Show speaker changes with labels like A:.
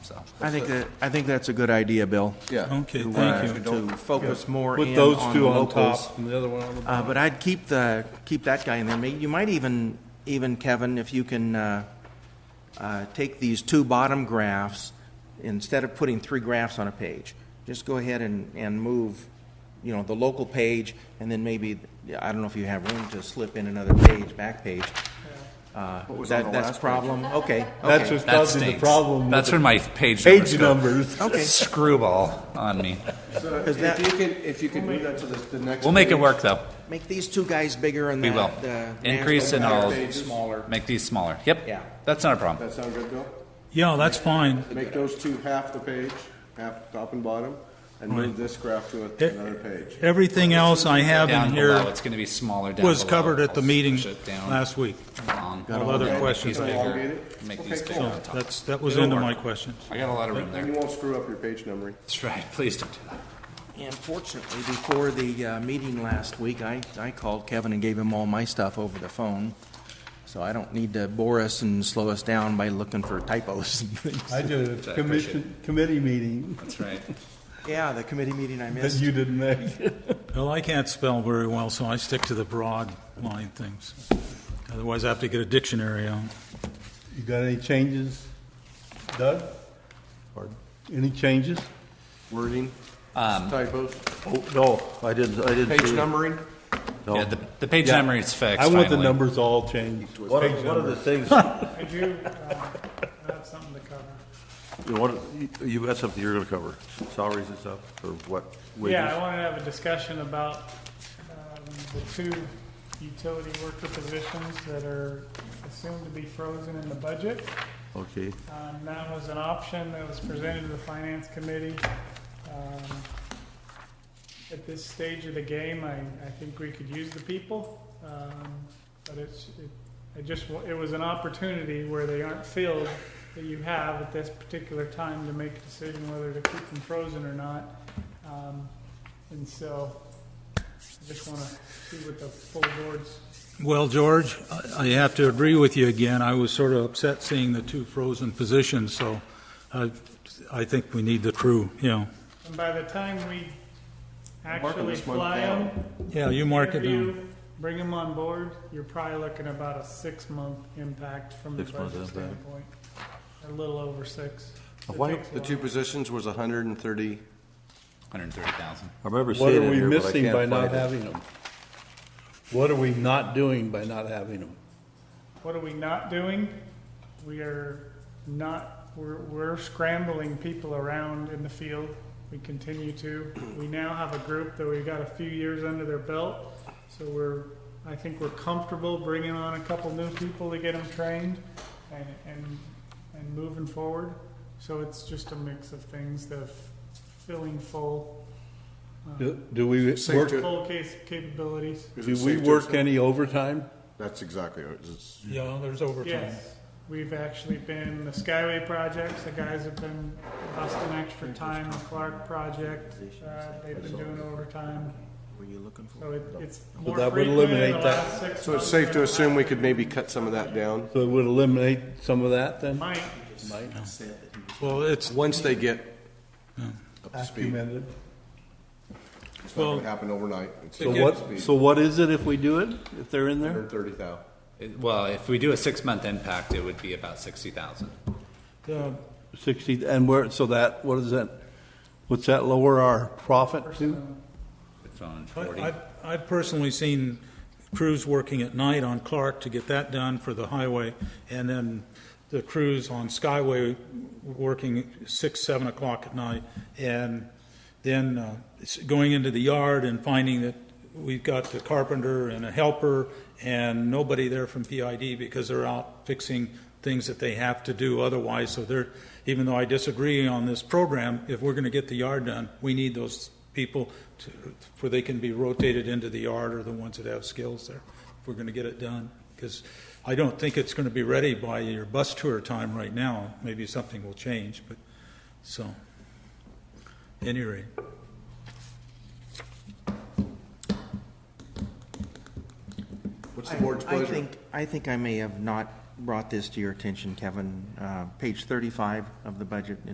A: so.
B: I think that, I think that's a good idea, Bill.
A: Yeah.
C: Okay,
B: to,
C: thank
B: uh,
C: you.
B: To focus more
C: Put
B: in
C: those
B: on the
C: two on
B: locals.
C: top and the other one on the
B: Uh, but I'd keep the, keep that guy in there. May- You might even, even Kevin, if you can, uh, uh, take these two bottom graphs, instead of putting three graphs on a page, just go ahead and, and move, you know, the local page, and then maybe, I don't know if you have room to slip in another page, back page. Uh,
A: What was
B: that-
A: on the
B: that's
A: last page?
B: problem, okay,
C: That's
B: okay.
C: what's
A: That
C: causing
A: stinks.
C: the problem. with
D: That's
C: the
D: where my page numbers
C: Page
D: go.
C: numbers.
B: Okay.
D: Screwball on me.
B: Because that-
A: Uh, If you can, if you can move that to the, the next.
D: We'll make it
A: page.
D: work, though.
B: Make these two guys bigger and
D: We
B: the,
D: will.
B: the.
D: Increase and
B: national
D: I'll
B: page Smaller.
D: make these smaller. Yep.
B: Yeah.
D: That's not a problem.
A: That sound good, Bill?
C: Yeah, that's fine.
A: Make those two half the page, half top and bottom, and move this graph to a- another page.
C: E-, Everything else I have
D: Down
C: in
D: below,
C: here
D: it's going to be smaller down
C: was
D: below.
C: covered at the
D: I'll
C: meeting
D: push it down
C: last week.
D: along.
C: All other questions.
D: These bigger.
A: Elongated?
D: Make
A: Okay,
D: these bigger
A: cool.
D: on top.
C: That's, that was
D: It'll
C: into
D: work.
C: my questions.
D: I got a lot of room
A: And
D: there.
A: you won't screw up your page numbering.
D: That's right. Please don't do that.
B: Unfortunately, before the uh, meeting last week, I, I called Kevin and gave him all my stuff over the phone. So I don't need to bore us and slow us down by looking for typos and things.
C: I did
D: I appreciate commission-
C: committee meeting
D: That's right.
B: Yeah, the committee meeting I missed.
C: didn't make. Well, I can't spell very well, so I stick to the broad line things. Otherwise, I have to get a dictionary out.
E: You got any changes, Doug? Or any changes?
A: Wording,
D: Um,
A: typos,
E: Oh, no, I didn't, I didn't.
A: page
E: see it.
A: numbering.
E: No.
D: Yeah, the, the page
E: Yeah.
D: number is fixed.
E: I want the
D: finally.
E: numbers all changed. One Page of, one of the numbers. things,
F: I do uh, have something to cover.
E: you want, you- you got something you're gonna cover, salaries and stuff, or what?
F: Yeah, I
E: wages?
F: wanted to have a discussion about um, the two utility worker positions that are assumed to be frozen in the budget.
E: Okay,
F: Um, That was an option that was presented to the finance committee. Um, At this stage of the game, I, I think we could use the people. um, But it's, it- I just, wa- it was an opportunity where they aren't filled that you have at this particular time to make a decision whether to keep them frozen or not. Um, And so I just want to see what the full board's
C: Well, George, I- I have to agree with you again. I was sort of upset seeing the two frozen positions, so I, I think we need the crew, you know.
F: And by the time we
A: Mark 'em
F: actually
A: this month
F: fly
A: down.
F: them,
C: Yeah, you mark it down.
F: bring them on board, you're probably looking about a six-month impact from the
E: Six months
F: budget
E: impact.
F: standpoint. A little over six. It
E: Why-
F: takes a
A: The two
F: while.
A: positions was hundred and thirty.
D: 130,000.
E: I remember
G: What
E: seeing
G: are
E: it
G: we
E: here, but I
G: missing by
E: can't
G: not
E: find it.
G: having them? What are we not doing by not having them?
F: What are we not doing? We are not, we're, we're scrambling people around in the field. We continue to. We now have a group that we've got a few years under their belt. So we're, I think we're comfortable bringing on a couple new people to get them trained and, and, and moving forward. So it's just a mix of things, the filling full,
E: Do- Do we
A: Safe
E: work,
A: to-
F: full case capabilities.
A: Is it
E: do we
A: safe to
E: work
A: assume-
E: any overtime?
A: That's exactly what it is.
C: Yeah, there's overtime.
F: Yes, we've actually been, the Skyway projects, the guys have been busting extra time, the Clark project, uh, they've been doing overtime,
B: Were you looking for?
F: so it, it's more
E: that would
F: frequent in the
E: eliminate that.
F: last six months.
A: So it's safe to
F: than
A: assume we
F: last
A: could
F: year.
A: maybe cut some of that down,
E: So it would eliminate some of that then?
F: Might,
C: Well, it's,
A: once they get up to speed.
E: Documented.
A: It's not
C: Well-
A: gonna happen overnight.
E: So what, so what is it if we do it, if they're in there?
A: Hundred and thirty thousand.
D: It- Well, if we do a six month impact, it would be about 60,000.
C: uh,
E: Sixty, and where, so that, what is that, what's that lower our profit to?
D: It's on
C: I-
D: 40.
C: I've, I've personally seen crews working at night on Clark to get that done for the highway, and then the crews on Skyway working six, seven o'clock at night, and then uh, it's going into the yard and finding that we've got the carpenter and a helper and nobody there from PID because they're out fixing things that they have to do otherwise. So they're, even though I disagree on this program, if we're going to get the yard done, we need those people to, where they can be rotated into the yard or the ones that have skills there, if we're going to get it done. Because I don't think it's going to be ready by your bus tour time right now. Maybe something will change, but, so, any rate.
A: What's the board's
B: I
A: pleasure?
B: think, I think I may have not brought this to your attention, Kevin. Uh, Page 35 of the budget